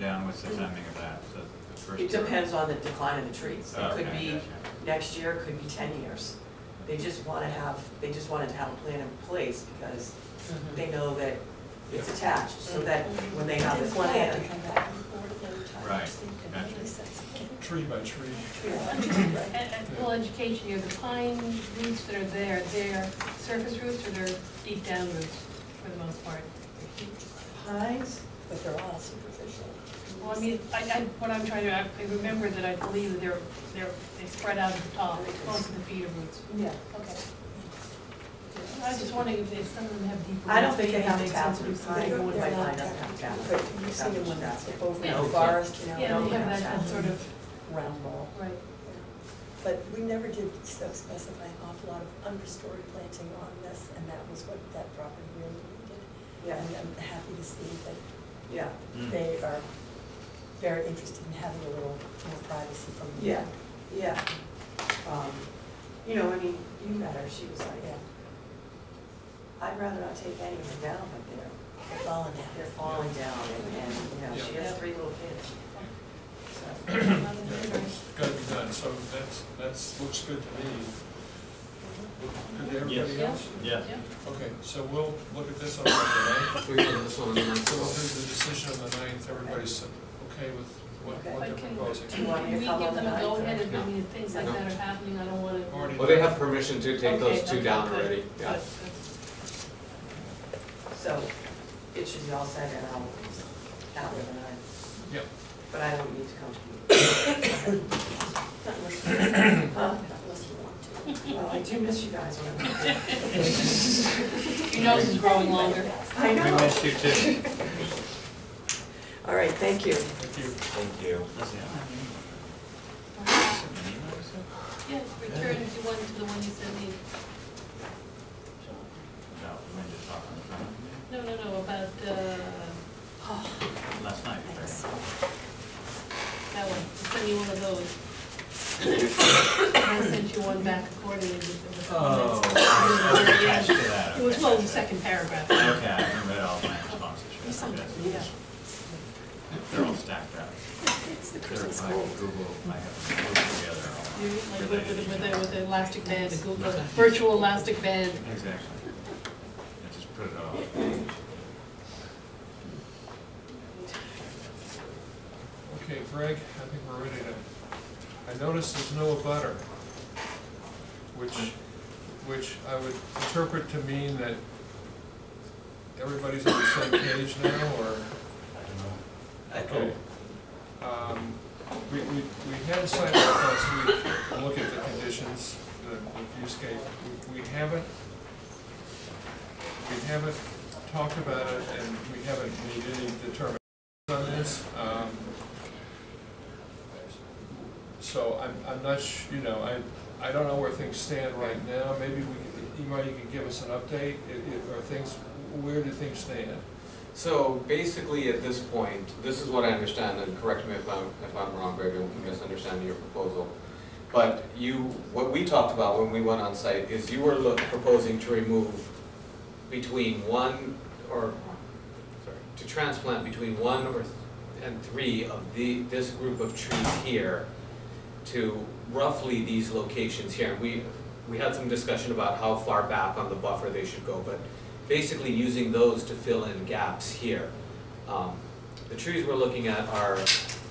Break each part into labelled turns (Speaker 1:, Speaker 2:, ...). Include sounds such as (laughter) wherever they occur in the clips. Speaker 1: down, what's the timing of that? So the first. Oh,
Speaker 2: It depends on the decline of the trees. It
Speaker 1: Okay,
Speaker 2: could be
Speaker 1: gotcha.
Speaker 2: next year, it could be ten years. They just wanna have, they just wanted to have a plan in place because they know that it's attached, so that when they have the
Speaker 3: Didn't want to have
Speaker 2: plan,
Speaker 3: to come back and forth every time,
Speaker 1: Right,
Speaker 3: so you can
Speaker 1: gotcha.
Speaker 3: really sense it.
Speaker 4: tree by tree.
Speaker 3: Right.
Speaker 5: And, and full education, you have the pine roots that are there, they're surface roots or they're deep down roots for the most part?
Speaker 2: pines,
Speaker 3: But they're all superficial.
Speaker 5: Well, I mean, I, I, what I'm trying to, I I remember that I believe that they're, they're, they spread out at the top, most of the feeder roots.
Speaker 2: yeah.
Speaker 5: Okay. I was just wondering if- if some of them have deep roots.
Speaker 2: I don't think they
Speaker 5: maybe it
Speaker 2: have
Speaker 5: makes sense
Speaker 2: tabs,
Speaker 5: to do
Speaker 2: I
Speaker 5: pine.
Speaker 2: know one
Speaker 3: They're
Speaker 2: by
Speaker 3: not
Speaker 2: pine doesn't have tabs.
Speaker 3: But you see the one that's up over in the
Speaker 2: Yeah.
Speaker 3: forest, you know?
Speaker 5: Yeah, they
Speaker 3: and
Speaker 5: have
Speaker 3: all
Speaker 5: that, that sort of,
Speaker 3: Round ball.
Speaker 5: right.
Speaker 3: But we never did so specify an awful lot of unrestored planting on this, and that was what that property really needed.
Speaker 2: Yeah.
Speaker 3: And I'm happy to see that
Speaker 2: Yeah,
Speaker 1: Mm.
Speaker 3: they are very interested in having a little more privacy from the.
Speaker 2: yeah, yeah. Um, You know, I mean, you met her, she was like,
Speaker 3: Yeah,
Speaker 2: I'd rather not take any of them down, but they're
Speaker 3: they're falling
Speaker 2: They're
Speaker 3: down.
Speaker 2: falling down and, and, you know, she has three little kids. So,
Speaker 4: Got to be done, so that's, that's, looks good to me. Good to everybody
Speaker 1: Yes.
Speaker 4: else?
Speaker 1: Yeah.
Speaker 4: Okay, so we'll look at this on the ninth,
Speaker 6: We can, this
Speaker 4: so we'll
Speaker 6: one, and
Speaker 4: do
Speaker 6: then-
Speaker 4: the decision on the ninth, everybody's okay with what, what they're
Speaker 5: But can,
Speaker 4: proposing?
Speaker 2: You want me
Speaker 5: can
Speaker 2: to
Speaker 5: we
Speaker 2: come
Speaker 5: give
Speaker 2: on
Speaker 5: them a
Speaker 2: the
Speaker 5: go
Speaker 2: ninth,
Speaker 5: ahead if,
Speaker 6: or-
Speaker 5: I mean, if things like
Speaker 6: No.
Speaker 5: that are happening, I don't wanna.
Speaker 4: Already
Speaker 6: well, they have permission to take those two down already, yeah.
Speaker 2: so it should be all said and I'll, out with an eye,
Speaker 4: Yep,
Speaker 2: but I don't need to come
Speaker 3: Not unless you want
Speaker 2: Huh?
Speaker 3: to. Not unless you want to.
Speaker 2: to you. Well, I do miss you guys when (laughs) I'm. out.
Speaker 5: Your nose is growing longer.
Speaker 2: I
Speaker 1: We
Speaker 2: know.
Speaker 1: missed you too.
Speaker 2: (laughs) All right, thank you.
Speaker 4: thank you.
Speaker 6: Thank you.
Speaker 5: Uh-huh. Yes, return to one, to the one you sent me,
Speaker 1: No, we just talked on the
Speaker 5: no, no, no, about, uh,
Speaker 1: phone last night. right?
Speaker 3: Thanks.
Speaker 5: that one, You sent me one of those. I sent you one back accordingly with the
Speaker 1: Oh, I
Speaker 5: comments.
Speaker 1: was attached to that.
Speaker 5: It was, well, the second paragraph.
Speaker 1: Okay, I remember all my responses.
Speaker 3: You sound
Speaker 1: Yes.
Speaker 3: like- yeah.
Speaker 1: They're all stacked up.
Speaker 3: It's the
Speaker 1: They're
Speaker 3: Christmas
Speaker 1: like
Speaker 3: cold.
Speaker 1: Google, I have them grouped together. all
Speaker 5: You- Like with, the- with, the- with the elastic band, the Google,
Speaker 1: Right.
Speaker 5: virtual elastic band.
Speaker 1: Exactly. I just put it all.
Speaker 4: Okay, Greg, I think we're ready to, I noticed there's no butter, which, which I would interpret to mean that everybody's on the same page now, or? I don't know. Okay. Um, we, we, we had a site walk last week, to look at the conditions, the, the viewscape, we, we haven't, we haven't talked about it, and we haven't made any determination on this. Um, So I'm, I'm not, sh- you know, I, I don't know where things stand right now. Maybe we, could- Imai, you could give us an update. I- i- Are things, where do things stand?
Speaker 6: So basically, at this point, this is what I understand, and correct me if I'm, if I'm wrong, Greg, I'm misunderstanding your proposal. But you, what we talked about when we went on site is you were look- proposing to remove between one or, sorry, to transplant between one or, th- and three of the, this group of trees here to roughly these locations here. And we, we had some discussion about how far back on the buffer they should go, but basically using those to fill in gaps here. Um, The trees we're looking at are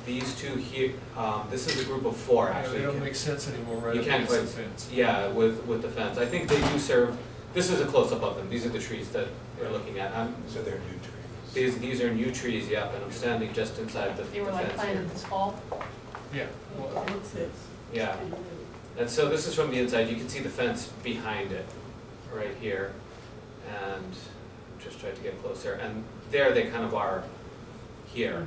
Speaker 6: these two here, um, this is a group of four
Speaker 4: You know,
Speaker 6: actually.
Speaker 4: They don't make sense anymore, right?
Speaker 6: You can't
Speaker 4: Against the
Speaker 6: quite-
Speaker 4: fence.
Speaker 6: Yeah, with, with the fence. I think they do serve, this is a close-up of them. These are the trees that we're looking at. I'm-
Speaker 7: So they're new trees.
Speaker 6: These, these are new trees, yep, and I'm standing just inside the the fence
Speaker 5: They were like
Speaker 6: here.
Speaker 5: planted this fall.
Speaker 4: Yeah, well,
Speaker 6: Yeah. And so this is from the inside, you can see the fence behind it, right here. And just tried to get closer, and there they kind of are here.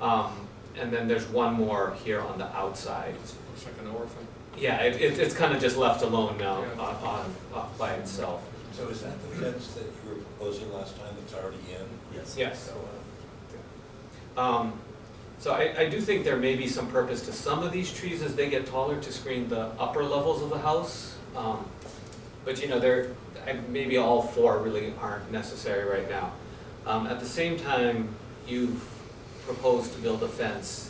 Speaker 6: Um, and then there's one more here on the outside.
Speaker 4: it looks like an orphan.
Speaker 6: Yeah, it, it, it's kind of just left alone now,
Speaker 4: Yeah.
Speaker 6: on, on, off by itself.
Speaker 7: So is that the fence that you were proposing last time that's already in?
Speaker 1: Yes.
Speaker 6: Yes.
Speaker 7: So, uh,
Speaker 6: Um, so I, I do think there may be some purpose to some of these trees as they get taller to screen the upper levels of the house. Um, but you know, they're, I, maybe all four really aren't necessary right now. Um, at the same time, you've proposed to build a fence